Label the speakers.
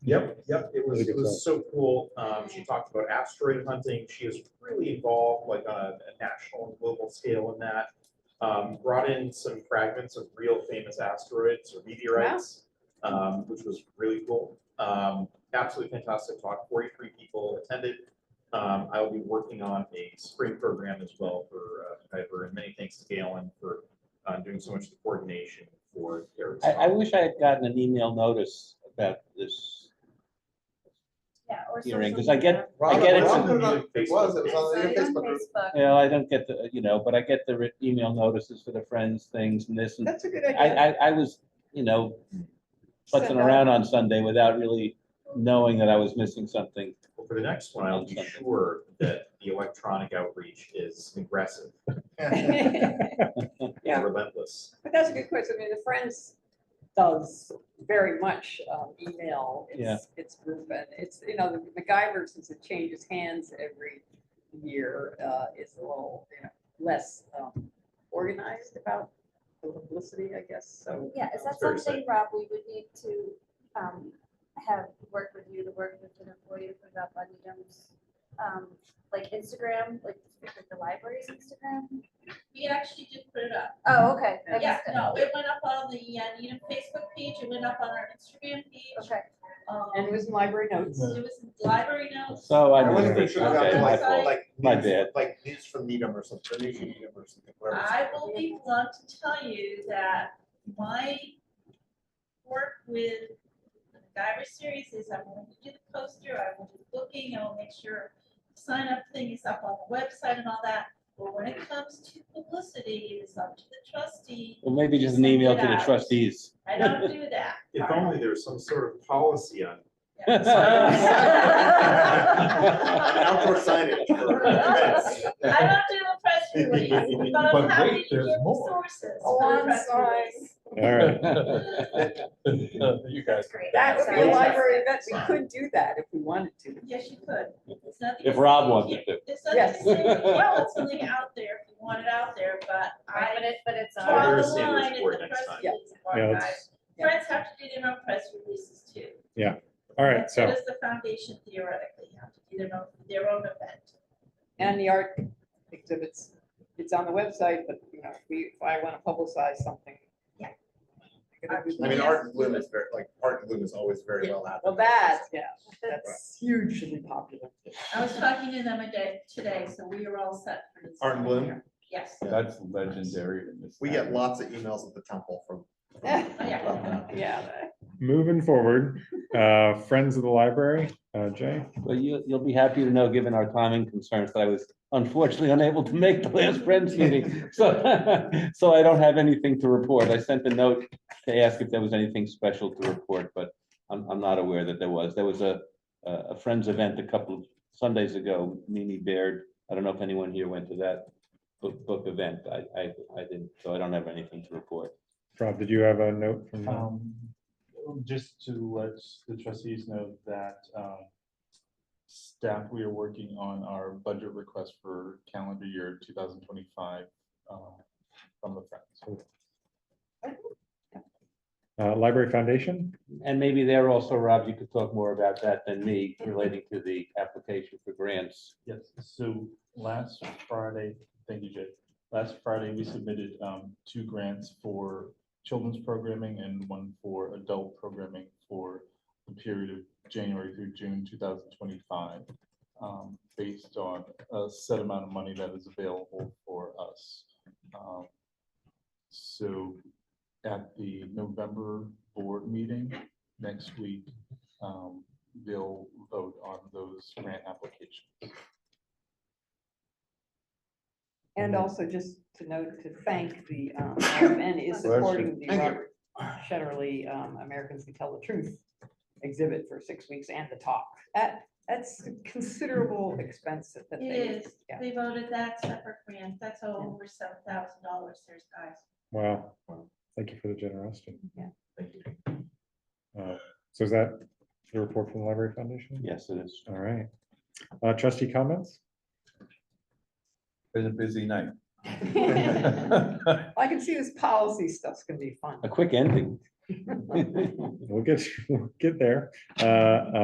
Speaker 1: Yep, yep, it was,
Speaker 2: Really good
Speaker 1: it was so cool. Um, she talked about asteroid hunting. She is really involved like on a a national and global scale in that. Um, brought in some fragments of real famous asteroids or meteorites, um, which was really cool. Um, absolutely fantastic talk. Forty-three people attended. Um, I will be working on a spring program as well for, uh, Kuiper, and many thanks to Galen for, uh, doing so much of the coordination for their.
Speaker 3: I, I wish I had gotten an email notice about this
Speaker 4: Yeah, or
Speaker 3: hearing,
Speaker 4: social
Speaker 3: because I
Speaker 4: media.
Speaker 3: get, I get it,
Speaker 1: Robert,
Speaker 3: from-
Speaker 1: Robert.
Speaker 2: It was, it
Speaker 4: I
Speaker 2: was
Speaker 4: saw
Speaker 2: on the
Speaker 4: it on
Speaker 2: Facebook.
Speaker 4: Facebook.
Speaker 3: you know, I don't get the, you know, but I get the re- email notices for the friends things and this, and
Speaker 5: That's a good
Speaker 3: I,
Speaker 5: idea.
Speaker 3: I, I was, you know,
Speaker 5: Send
Speaker 3: putzing
Speaker 5: out-
Speaker 3: around on Sunday without really knowing that I was missing something.
Speaker 1: Well, for the next one, I'll be
Speaker 3: Something.
Speaker 1: sure that the electronic outreach is aggressive
Speaker 2: group.
Speaker 5: But Yeah.
Speaker 1: and relentless.
Speaker 5: that's a good question. I mean, the Friends does very much um, email its, its group. And it's, you know, the MacGyver, since it changes hands every year, uh, is a little, you know, less um, organized about the publicity, I guess, so.
Speaker 4: Yeah, is that
Speaker 1: Very safe.
Speaker 4: something, Rob, we would need to um, have work with you to work with an employee to put up on Needham's, um, like Instagram, like like the library's Instagram?
Speaker 6: We actually just put it up.
Speaker 4: Oh, okay. I
Speaker 6: Yeah,
Speaker 4: missed it.
Speaker 6: no, it went up on the uh, Needham Facebook page, it went up on our Instagram page.
Speaker 4: Okay.
Speaker 6: um,
Speaker 5: And it was in library notes.
Speaker 6: It was in library notes.
Speaker 3: So I
Speaker 2: I wasn't
Speaker 3: didn't,
Speaker 2: even sure about
Speaker 3: okay, my
Speaker 2: like,
Speaker 3: fault.
Speaker 2: like.
Speaker 3: My
Speaker 2: news-
Speaker 3: bad.
Speaker 2: Like news from Needham or something, news from Needham or something. whatever it's
Speaker 6: I will be blunt to tell you that my work with the MacGyver series is I'm going to do the poster, I will do booking, I will make sure sign up thing is up on the website and all that. But when it comes to publicity, it is up to the trustee.
Speaker 3: Well, maybe just an email to the trustees.
Speaker 6: I don't do that.
Speaker 1: If
Speaker 6: part.
Speaker 1: only there was some sort of policy on.
Speaker 2: An outdoor signage for events.
Speaker 6: I don't do a press release, but I'm
Speaker 7: But
Speaker 6: happy
Speaker 7: wait,
Speaker 6: to give
Speaker 7: there's more.
Speaker 6: sources
Speaker 4: Oh,
Speaker 6: for the
Speaker 5: One
Speaker 6: press
Speaker 5: sign.
Speaker 6: release.
Speaker 3: All right.
Speaker 7: You guys.
Speaker 4: Great.
Speaker 5: That would be a
Speaker 4: Sorry.
Speaker 5: library event. We could do that if we wanted to.
Speaker 6: Yes, you could. It's nothing
Speaker 3: If
Speaker 6: to
Speaker 3: Rob
Speaker 6: say
Speaker 3: wanted
Speaker 6: here.
Speaker 3: to.
Speaker 6: There's nothing to
Speaker 5: Yes.
Speaker 6: say, well, it's something out there if you want it out there, but
Speaker 4: Right, But
Speaker 6: I
Speaker 4: it, but it's
Speaker 1: Sorry,
Speaker 6: draw
Speaker 1: there
Speaker 6: the
Speaker 1: is
Speaker 4: on.
Speaker 1: sandwich
Speaker 6: line in
Speaker 1: board
Speaker 6: the
Speaker 1: next
Speaker 6: press
Speaker 1: time.
Speaker 6: release
Speaker 8: Yeah,
Speaker 6: part, guys.
Speaker 8: it's-
Speaker 5: yeah.
Speaker 6: Friends have to do their own press releases too.
Speaker 8: All right,
Speaker 6: So
Speaker 8: so,
Speaker 6: does the foundation theoretically have to do their own, their own event.
Speaker 5: And the art exhibits, it's on the website, but you know, if we, if I want to publicize something.
Speaker 6: Yeah.
Speaker 5: gotta do
Speaker 2: I mean,
Speaker 5: that.
Speaker 2: Art and Bloom is very, like, Art and Bloom is always very well advertised.
Speaker 5: Well, that, yeah, that's hugely popular.
Speaker 6: I was talking to them a day, today, so we are all set for this.
Speaker 2: Art and Bloom?
Speaker 6: year. Yes.
Speaker 7: That's legendary in this.
Speaker 2: We get
Speaker 7: town.
Speaker 2: lots of emails at the temple from.
Speaker 6: Yeah.
Speaker 5: Yeah.
Speaker 8: moving forward, uh, Friends of the Library, uh, Jay,
Speaker 3: Well, you, you'll be happy to know, given our timing concerns, that I was unfortunately unable to make the last Friends meeting. So, so I don't have anything to report. I sent a note to ask if there was anything special to report, but I'm, I'm not aware that there was. There was a, a a Friends event a couple of Sundays ago, Mimi Baird. I don't know if anyone here went to that book, book event. I, I, I didn't, so I don't have anything to report.
Speaker 8: Rob, did you have a note from? uh,
Speaker 9: Um, just to let the trustees know that, um, staff, we are working on our budget request for calendar year two thousand twenty-five, um, from the Friends.
Speaker 8: Uh, Library Foundation,
Speaker 3: And maybe there also, Rob, you could talk more about that than me relating to the application for grants.
Speaker 9: Yes, so last Friday, thank you, Jay. Last Friday, we submitted, um, two grants for children's programming and one for adult programming for the period of January through June two thousand twenty-five, um, based on a set amount of money that is available for us. Um, So at the November board meeting next week, um, they'll vote on those grant applications.
Speaker 5: And also just to note, to thank the, um, RMN is supporting the
Speaker 2: Thank you.
Speaker 5: Robert Shetterly, um, Americans Who Tell the Truth exhibit for six weeks and the talk. That, that's considerable expense that they.
Speaker 6: It is.
Speaker 5: yeah.
Speaker 6: They voted that separate grant. That's all over seven thousand dollars. There's guys.
Speaker 8: wow, thank you for the generosity.
Speaker 1: Thank you.
Speaker 8: Uh, So is that the report from the Library Foundation?
Speaker 3: Yes, it is.
Speaker 8: All right. Uh, Trustee comments?
Speaker 7: Been a busy night.
Speaker 5: I can see this policy stuff's gonna be fun.
Speaker 3: A quick ending.
Speaker 8: We'll get, we'll get there. Uh,